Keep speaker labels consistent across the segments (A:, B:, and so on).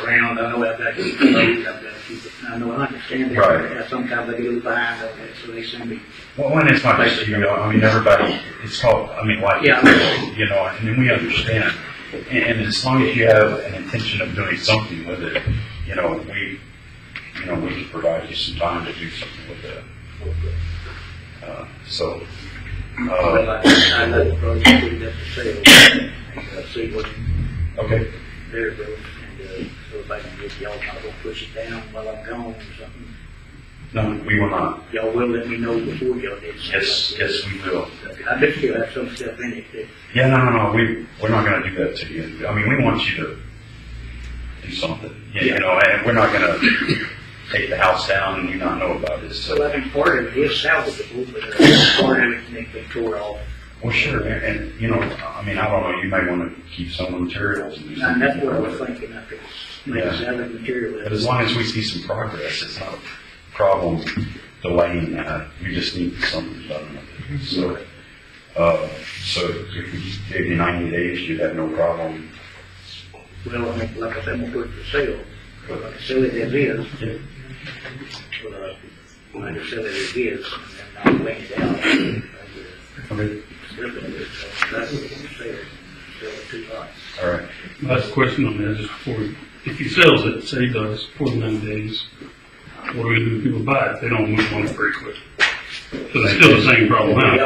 A: I know I've got, to keep the roads, I've got to keep it, I know, I understand
B: Right.
A: that, sometimes they get a little behind on that, so they send me,
B: Well, and it's not just you, I mean, everybody, it's called, I mean, like,
A: Yeah.
B: you know, and then we understand. And and as long as you have an intention of doing something with it, you know, we, you know, we can provide you some time to do something with it. Uh, So,
A: Well,
B: uh,
A: I, I let the roads do that for sale, and, uh, see what
B: okay,
A: their roads, and, uh, so if I can get y'all, I will push it down while I'm gone or something.
B: no, we will not.
A: Y'all will let me know before y'all did.
B: Yes, yes, we will.
A: I bet you'll have some stuff in it that
B: Yeah, no, no, no, we, we're not gonna do that to you. I mean, we want you to do something, you you know, and we're not gonna take the house down and you not know about it, so.
A: So I think part of it is salvageable, but uh, part of it can be tore off.
B: Well, sure, and, and, you know, I mean, I don't know, you may wanna keep some of the materials and do
A: And
B: something.
A: that's what I was
B: with it.
A: thinking, I could make
B: Yeah.
A: salvage material.
B: But as long as we see some progress, it's not a problem delaying that, we just need something done with it. So, uh, so if we gave you ninety days, you'd have no problem.
A: Well, I mean, like I said, I'm gonna put it for sale, but I can sell it as is,
B: Yeah.
A: but, uh, I can sell it as is, and not lay it out. and, uh,
B: Okay,
A: strip it, so That's what I'm saying, sell it too high.
B: all right.
C: Last question on that is for, if he sells it, say he does, forty-nine days, what do we do if people buy it? They don't move on it very quick. So it's still the same problem, huh?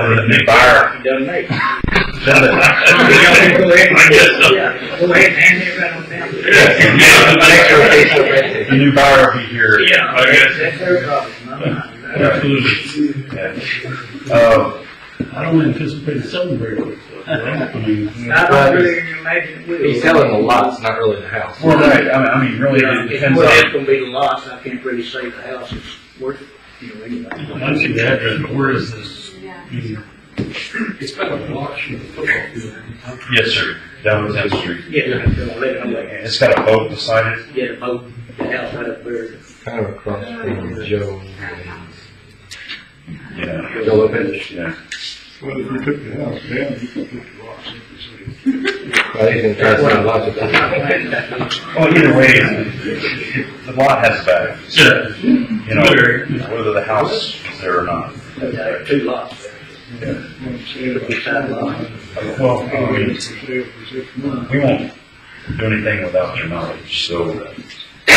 B: Buyer.
A: Done made.
C: I guess so.
A: Yeah, go ahead and hand it right on down.
B: The new buyer will be here.
C: Yeah, I guess,
A: That's their problem, not mine.
C: absolutely.
B: Yeah. Uh,
C: I don't anticipate selling very quick, so, I mean,
A: I don't really imagine it will.
D: He's selling the lots, not really the house.
B: well, right, I mean, I mean, really,
A: Yeah,
B: it
A: If
B: depends
A: well,
B: on.
A: it's gonna be the lots, I can't really say the house is worth, you know, anyway.
C: I see the address, but where is this? I mean,
D: It's been a block from the football field.
B: Yes, sir. Down Tenth Street.
A: Yeah, I'm gonna let it, I'm gonna
B: It's got a boat beside it.
A: get a boat, the house right up there.
D: Kind of across from Joe.
B: Yeah.
D: Joe Lopez.
B: Yeah.
E: Well, if you took the house down, you could put the lots in the city.
D: Well, he's gonna try to sell lots of
B: Well, either way, the lot has value.
C: Yeah.
B: You know, whether the house is there or not.
A: There are two lots there.
E: What I'm saying about
A: Side lot.
B: Well,
E: how
B: I
E: it
B: mean,
E: is for sale for six months.
B: we won't do anything without your knowledge, so uh,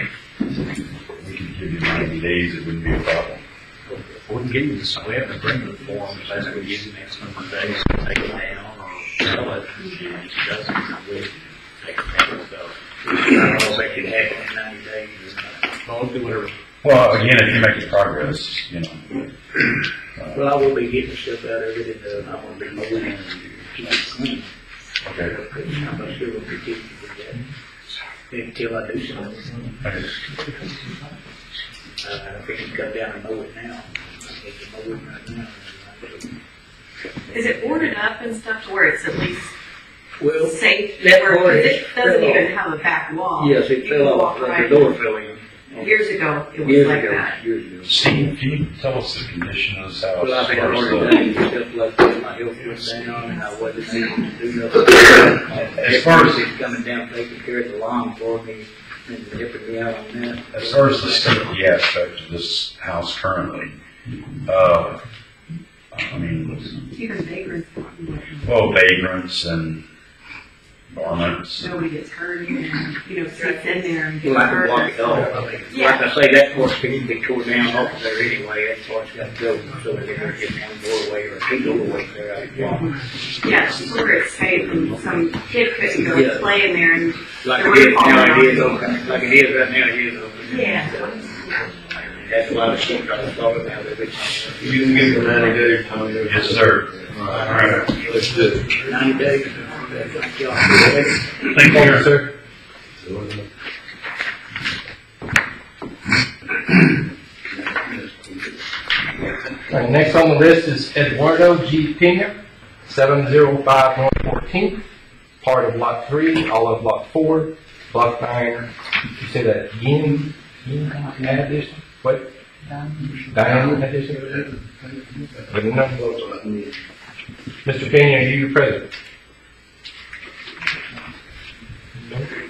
B: we can give you ninety days, it wouldn't be a problem.
F: We can give you this, we have an agreement form, if that's what we give you next number of days, to take it down or sell it. And if it doesn't, we take it down, so.
A: I don't think it happened in ninety days.
F: Well, do whatever.
B: Well, again, if you make progress, you know,
A: Well, I will be getting stuff out of it, and, uh, I wanna be mowing and keep it clean.
B: okay.
A: I'm not sure what we did with that, until I do something.
B: Okay.
A: Uh, I think you cut down and mow it now. I need to mow it right now.
G: Is it ordered up and stuff to where it's at least
A: Well,
G: safe,
A: that
G: where,
A: part
G: because
A: is
G: it doesn't
A: fell
G: even
A: off.
G: have a back wall?
A: Yes, it
G: You
A: fell
G: can
A: off,
G: walk
A: like
G: right-
A: the door fell in.
G: Years ago, it was
A: Years
G: like
A: ago,
G: that.
A: years
B: Steve, can you tell us the condition of this house?
A: ago. Well, I
B: as
A: think I
B: far as
A: already
B: the-
A: done, it, stuff like that, my health went down, and I wasn't able to do nothing.
B: As far as-
A: It's coming down, taking care of the lawn for me, and helping me out on that.
B: As far as the safety aspect of this house currently, uh, I mean,
G: Even vagrants,
B: well, vagrants and varmints.
G: nobody gets hurt, and, you know, sits in there and
A: Well,
G: gets
A: I can
G: hurt.
A: walk it off, I mean,
G: Yeah.
A: like I say, that porch can be tore down off of there anyway, that porch got built, so they're gonna get one more away or two more away there, I can walk.
G: Yeah, just where it's safe, and some kid couldn't go
A: Yeah.
G: and play in there, and,
A: Like it is now, it is open, like it is right now, it is open.
G: yeah.
A: That's why the shit drives off now, they're bitching.
D: You can give him ninety days, Tommy.
B: Yes, sir.
D: All right, let's do it.
A: Ninety days. Thank
C: Thank you, sir.
D: All right, next on the list is Eduardo G. Pena, seven zero five one fourteenth, part of lot three, all of lot four, block nine, you say that, Yin, Yin addition, what? Diane addition? But no. Mr. Pena, are you present?